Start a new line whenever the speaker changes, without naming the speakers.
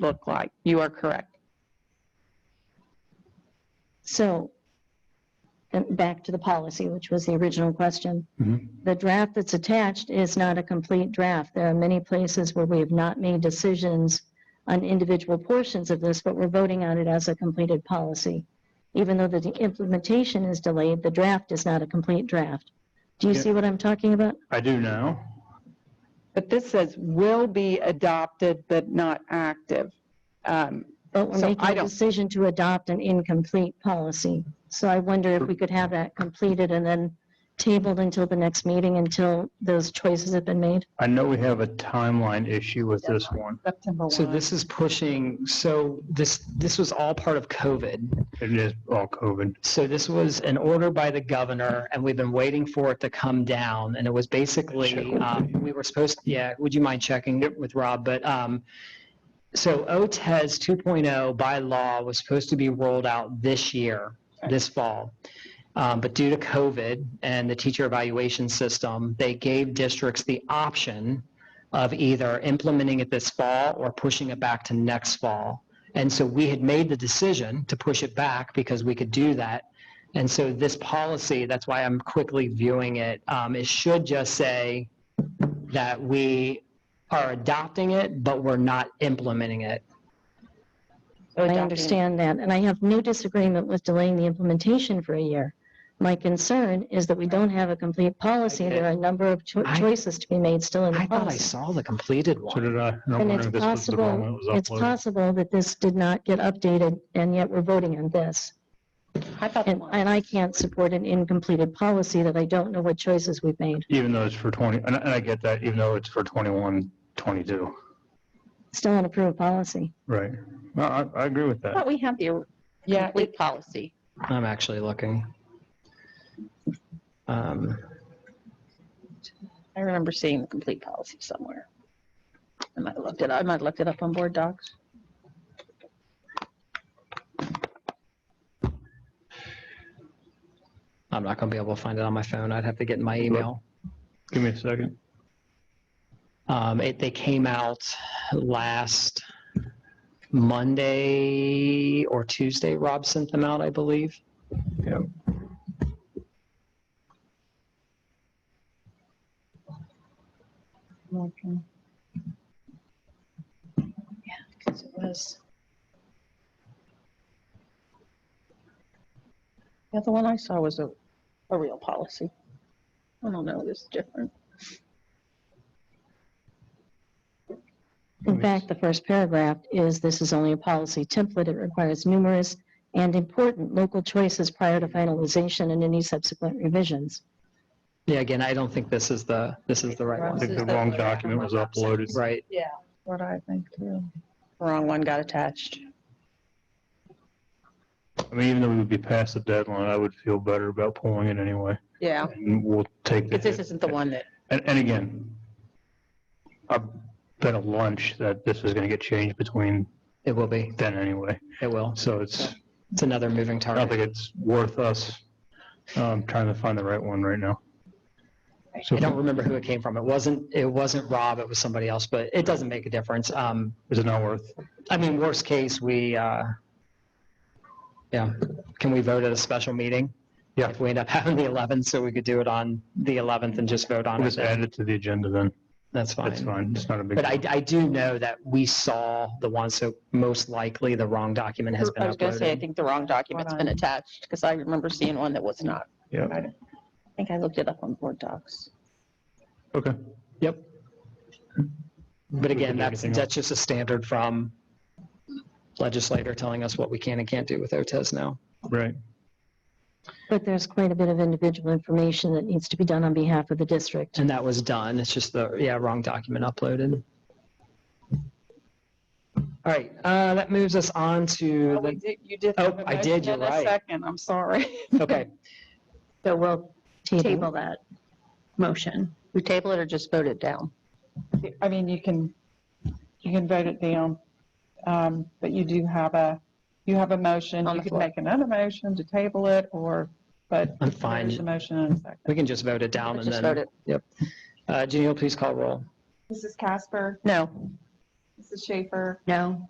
look like. You are correct.
So, and back to the policy, which was the original question.
Mhm.
The draft that's attached is not a complete draft. There are many places where we have not made decisions on individual portions of this, but we're voting on it as a completed policy. Even though the implementation is delayed, the draft is not a complete draft. Do you
Yeah.
see what I'm talking about?
I do now.
But this says will be adopted but not active. Um,
But we're
So
making
I
a
don't-
decision to adopt an incomplete policy. So I wonder if we could have that completed and then tabled until the next meeting until those choices have been made?
I know we have a timeline issue with this one.
September
So
1.
this is pushing, so this, this was all part of COVID.
It is all COVID.
So this was an order by the governor and we've been waiting for it to come down. And it was
Check
basically,
with
um, we were supposed, yeah, would you mind checking with Rob? But, um, so E OTES 2.0 by law was supposed to be rolled out this year, this fall. Um, but due to COVID and the teacher evaluation system, they gave districts the option of either implementing it this fall or pushing it back to next fall. And so we had made the decision to push it back because we could do that. And so this policy, that's why I'm quickly viewing it, um, it should just say that we are adopting it, but we're not implementing it.
I understand that, and I have no disagreement with delaying the implementation for a year. My concern is that we don't have a complete policy. There are a number of cho-
I-
choices to be made still in the
I thought I
policy.
saw the completed
So
one.
did I. I don't
And
know
it's
if this was the one that
possible,
was
it's
uploaded.
possible that this did not get updated, and yet we're voting on this.
I thought
And, and I can't support an incompleted policy that I don't know what choices we've made.
Even though it's for 20, and I and I get that, even though it's for 21, 22,
Still an approved policy.
right? No, I, I agree with that.
But we have the
yeah, it-
complete policy.
I'm actually looking. Um,
I remember seeing the complete policy somewhere. I might have looked it, I might have looked it up on board docs.
I'm not going to be able to find it on my phone. I'd have to get in my email.
Give me a second.
Um, it, they came out last Monday or Tuesday. Rob sent them out, I believe.
Yep.
Because it was. Yeah, the one I saw was a, a real policy. I don't know, it's different.
In fact, the first paragraph is, this is only a policy template. It requires numerous and important local choices prior to finalization and any subsequent revisions.
Yeah, again, I don't think this is the, this is the right
I
one.
think the wrong document was uploaded.
Right.
What I think too. Wrong one got attached.
I mean, even though we'd be past the deadline, I would feel better about pulling it anyway.
Yeah,
And we'll take the.
because this isn't the one that,
And, and again, I bet a lunch that this is going to get changed between
It will be.
then anyway.
It will.
So it's,
It's another moving
I don't
target.
think it's worth us um, trying to find the right one right now. So
I don't remember who it came from. It wasn't, it wasn't Rob, it was somebody else, but it doesn't make a difference. Um,
is it not worth?
I mean, worst case, we, uh, yeah, can we vote at a special meeting?
Yeah.
If we end up having the 11th, so we could do it on the 11th and just vote on
We'll
it.
just add
then.
it to the agenda then.
That's
That's
fine.
fine. It's not a big.
But I, I do know that we saw the one, so most likely the wrong document has
I
been
was gonna say, I
uploaded.
think the wrong document's been attached, because I remember seeing one that was not.
Yeah.
I think I looked it up on board docs.
Okay.
Yep. But
We can
again,
do
that's,
anything else.
that's just a standard from legislator telling us what we can and can't do with OTES now.
Right.
But there's quite a bit of individual information that needs to be done on behalf of the district.
And that was done. It's just the, yeah, wrong document uploaded. All right, uh, that moves us on to,
Oh, we
the-
did- You did.
Oh,
have a
I did,
motion and
you're
a
right.
Second, I'm sorry.
okay,
So we'll
Table that motion. We table it or just vote it down?
I mean, you can, you can vote it down, um, but you do have a, you have a motion.
On
You
the
could
floor.
make another motion to table it or, but
I'm
there's a
fine.
motion and a second.
We can just vote it down
Let's
and
Just vote
then,
it.
uh, Janine, please call roll.
Mrs. Casper,
No.
Mrs. Schaefer,
No.